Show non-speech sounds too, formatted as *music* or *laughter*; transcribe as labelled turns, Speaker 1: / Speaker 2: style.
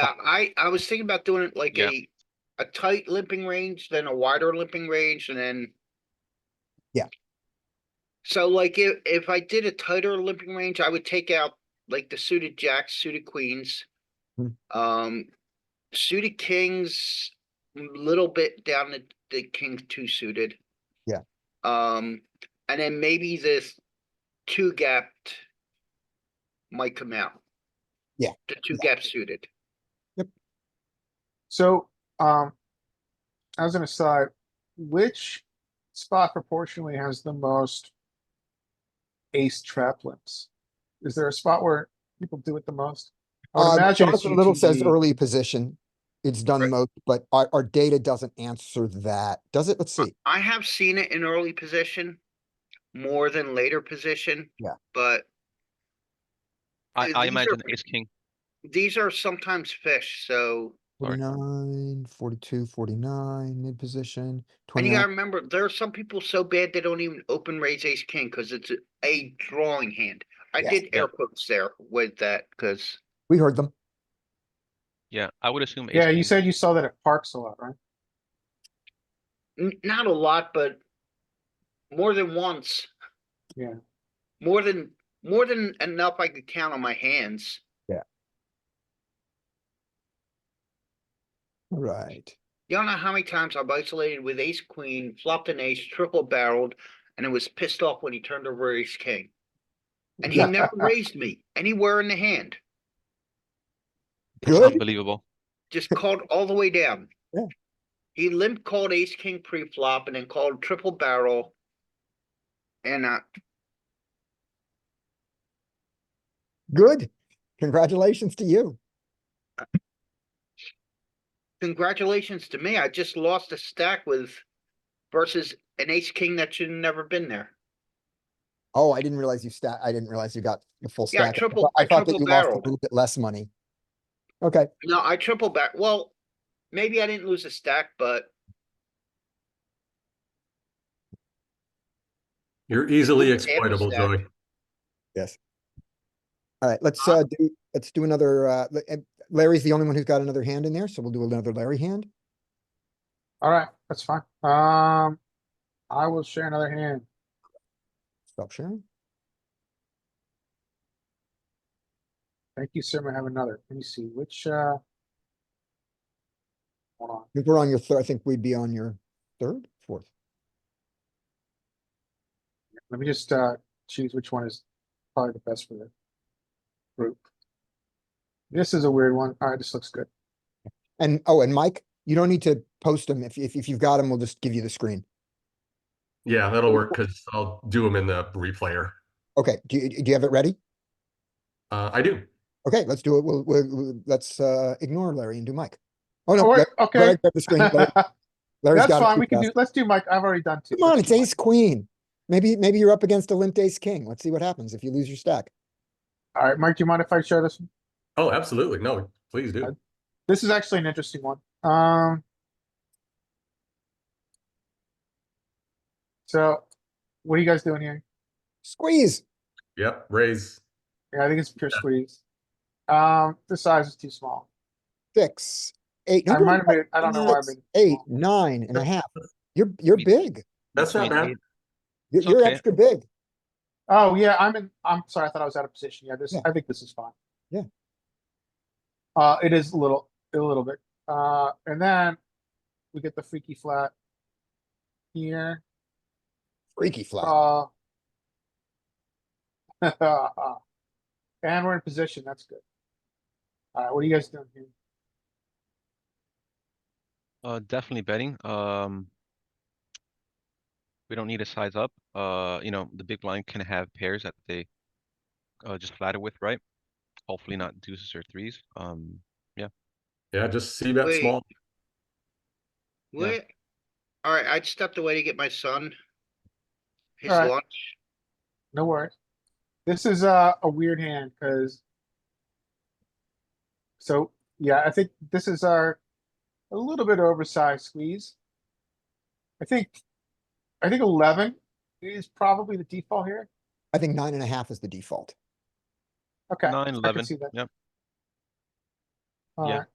Speaker 1: Um, I, I was thinking about doing it like
Speaker 2: Yeah.
Speaker 1: a, a tight limping range, then a wider limping range and then.
Speaker 3: Yeah.
Speaker 1: So like if, if I did a tighter limping range, I would take out like the suited jacks, suited queens.
Speaker 3: Hmm.
Speaker 1: Um, suited kings, little bit down the, the king two suited.
Speaker 3: Yeah.
Speaker 1: Um, and then maybe this two gapped. Might come out.
Speaker 3: Yeah.
Speaker 1: The two gap suited.
Speaker 4: So, um, as an aside, which spot proportionally has the most ace trap limps? Is there a spot where people do it the most? I would
Speaker 3: Uh,
Speaker 4: imagine it's E.
Speaker 3: Jonathan Little says
Speaker 4: GTD.
Speaker 3: early position. It's done
Speaker 1: Right.
Speaker 3: most, but our, our data doesn't answer that. Does it? Let's see.
Speaker 1: I have seen it in early position. More than later position.
Speaker 3: Yeah.
Speaker 1: But Uh,
Speaker 2: I, I
Speaker 1: these are
Speaker 2: imagine
Speaker 1: pretty-
Speaker 2: ace king.
Speaker 1: these are sometimes fish, so,
Speaker 2: Sorry.
Speaker 3: 49, 42, 49, mid position,
Speaker 1: and you gotta
Speaker 3: 29.
Speaker 1: remember, there are some people so bad they don't even open raise ace king, cause it's a- a drawing hand. I
Speaker 3: Yeah.
Speaker 1: did
Speaker 2: Yeah.
Speaker 1: air quotes there with that, cause
Speaker 3: We heard them.
Speaker 2: Yeah, I would assume. ace
Speaker 4: Yeah, you
Speaker 2: king.
Speaker 4: said you saw that at Parks a lot, right?
Speaker 1: n- not a lot, but more than once.
Speaker 4: Yeah.
Speaker 1: More than, more than enough I could count on my hands.
Speaker 3: All Right.
Speaker 1: Y'all know how many times I've isolated with ace queen, flopped an ace, triple barreled, and it was pissed off when he turned over ace king. And he never raised me anywhere in the hand,
Speaker 2: It's
Speaker 3: Good.
Speaker 2: Unbelievable.
Speaker 1: just called all the way down.
Speaker 3: Yeah.
Speaker 1: He limp called ace king pre-flop and then called triple barrel. And uh,
Speaker 3: Good. Congratulations to you.
Speaker 1: congratulations to me, I just lost a stack with versus an ace king that should have never been there.
Speaker 3: Oh, I didn't realize you stat, I didn't realize you got the full
Speaker 1: Yeah, I
Speaker 3: stack. I
Speaker 1: triple-
Speaker 3: thought- I
Speaker 1: I
Speaker 3: thought that
Speaker 1: triple
Speaker 3: you lost a
Speaker 1: barreled.
Speaker 3: little bit less money. Okay,
Speaker 1: No, I triple back, well, maybe I didn't lose a stack, but
Speaker 5: You're easily
Speaker 1: Look at the average
Speaker 5: exploitable,
Speaker 1: stack.
Speaker 5: Joey.
Speaker 3: all right, let's,
Speaker 1: Uh,
Speaker 3: uh, do, let's do another, uh, l- and Larry's the only one who's got another hand in there, so we'll do another Larry hand.
Speaker 4: Alright, that's fine. Um, I will share another hand.
Speaker 3: Stop sharing.
Speaker 4: Thank you, sir. I have another. Let me see which, uh. Hold on.
Speaker 3: If we're on your third, I think we'd be on your third, fourth.
Speaker 4: Let me just uh choose which one is probably the best for the group. This is a weird one. Alright, this looks good.
Speaker 3: And, oh, and Mike, you don't need to post them. If, if, if you've got them, we'll just give you the screen.
Speaker 5: Yeah, that'll work because I'll do them in the replayer.
Speaker 3: Okay, do you, do you have it ready?
Speaker 5: Uh, I do.
Speaker 3: Okay, let's do it. We'll, we'll, we'll- let's, uh, ignore Larry and do Mike. Oh, no.
Speaker 4: Oh, wait,
Speaker 3: Larry-
Speaker 4: okay.
Speaker 3: Larry grabbed the screen.
Speaker 4: *laughs*
Speaker 3: Larry-
Speaker 4: That's
Speaker 3: Larry's got it
Speaker 4: fine.
Speaker 3: too
Speaker 4: We can
Speaker 3: fast.
Speaker 4: do, let's do Mike. I've already done two.
Speaker 3: Come on,
Speaker 4: Let's
Speaker 3: it's
Speaker 4: do Mike.
Speaker 3: ace queen. Maybe, maybe you're up against a limp ace king. Let's see what happens if you lose your stack.
Speaker 4: Alright, Mike, do you mind if I share this? one?
Speaker 5: Oh, absolutely. No, please do.
Speaker 4: This is actually an interesting one. Um. So, what are you guys doing here?
Speaker 3: Squeeze.
Speaker 5: Yep, raise.
Speaker 4: Yeah, I think it's pure squeeze. Um, the size is too small.
Speaker 3: Six, eight.
Speaker 4: I
Speaker 3: no,
Speaker 4: might have made, it- I don't know why I
Speaker 3: six,
Speaker 4: made. it
Speaker 3: Eight,
Speaker 4: small.
Speaker 3: nine and a half. You're, you're
Speaker 2: Me-
Speaker 3: big.
Speaker 5: That's not bad.
Speaker 2: Between
Speaker 3: You're,
Speaker 2: It's
Speaker 3: you're
Speaker 2: okay.
Speaker 3: extra big.
Speaker 4: Oh, yeah, I'm in, I'm sorry, I thought I was out of position. Yeah, this,
Speaker 3: Yeah.
Speaker 4: I think this is fine.
Speaker 3: Yeah.
Speaker 4: Uh, it is a little, a little bit, uh, and then we get the freaky flat. Here,
Speaker 3: Freaky flat.
Speaker 4: uh. *laughs* And we're in position, that's good. Alright, what are you guys doing here?
Speaker 2: Uh, definitely betting, um. We don't need a size up, uh, you know, the big blind can have pairs that they. Uh, just flatter with, right? Hopefully not deuces or threes, um,
Speaker 5: Yeah, just see bet
Speaker 1: Wait.
Speaker 5: small.
Speaker 2: Yeah.
Speaker 1: What? Alright, I stepped away to get my son. His
Speaker 4: Alright.
Speaker 1: lunch.
Speaker 4: No worries. This is uh, a, a weird hand, cause. So, yeah, I think this is our, a little bit oversized squeeze. I think, I think eleven is probably the default here.
Speaker 3: I think nine and a half is the default.
Speaker 4: Okay.
Speaker 2: nine,
Speaker 4: I can
Speaker 2: eleven,
Speaker 4: see that.
Speaker 2: yep,
Speaker 4: All
Speaker 2: Yeah.
Speaker 4: right.